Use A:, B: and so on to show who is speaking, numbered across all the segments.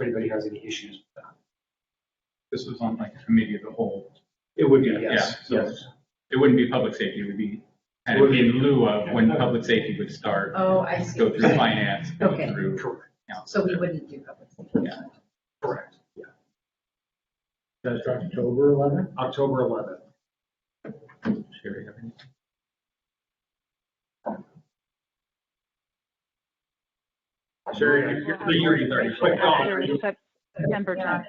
A: if anybody has any issues with that.
B: This was on like a committee of the whole. It would
A: be, yes, yes.
B: It wouldn't be public safety, it would be kind
A: It would
B: of
A: be-
B: in lieu of when public safety would start.
C: Oh, I see.
B: Go through finance, go
C: Okay.
B: through.
A: Correct,
C: So we
B: council.
C: wouldn't do public safety.
B: Yeah.
A: correct.
D: That's October eleventh?
A: October eleventh.
B: Sherry, have any-
A: Sherry, you're-
B: The year you've already-
A: Quick call.
E: After Sep- September
C: Yeah.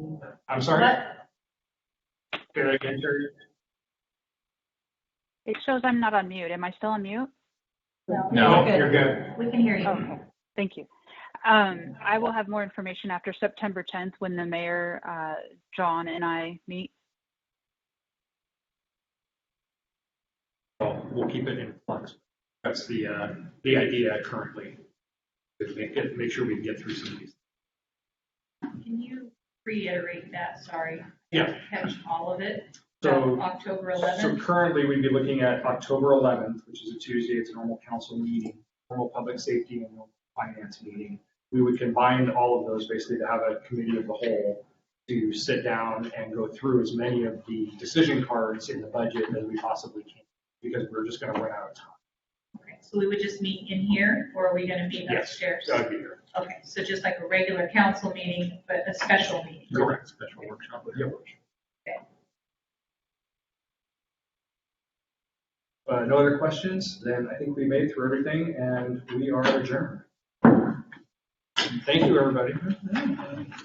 E: 10th.
A: I'm sorry,
C: But
A: say that again, Sherry?
E: It shows I'm not on mute. Am I still on mute?
B: No.
A: You're good.
C: we can hear
E: Oh,
C: you.
E: okay. Thank you. Um, I will have more information after September 10th when the mayor, uh, John and I meet.
A: Well, We'll keep it in flux. That's the, uh, the idea currently. Is make, it- make sure we can get through some of these.
F: Can you reiterate that, sorry?
A: Yeah.
F: Catch all of it? Uh,
A: So.
F: October
A: So
F: 11th?
A: currently, we'd be looking at October 11th, which is a Tuesday, it's a normal council meeting, normal public safety and normal finance meeting. We would combine all of those basically to have a committee of the whole to sit down and go through as many of the decision cards in the budget as we possibly can, because we're just gonna run out of time.
F: Okay, So we would just meet in here, or are we going to meet
A: Yes. Uh,
F: upstairs?
A: That'd be your-
F: Okay, so just like a regular council meeting, but a special meeting?
A: Correct.
B: Special workshop.
A: Yeah. Uh, no other questions, then I think we made it through everything and we are adjourned. Thank you, everybody.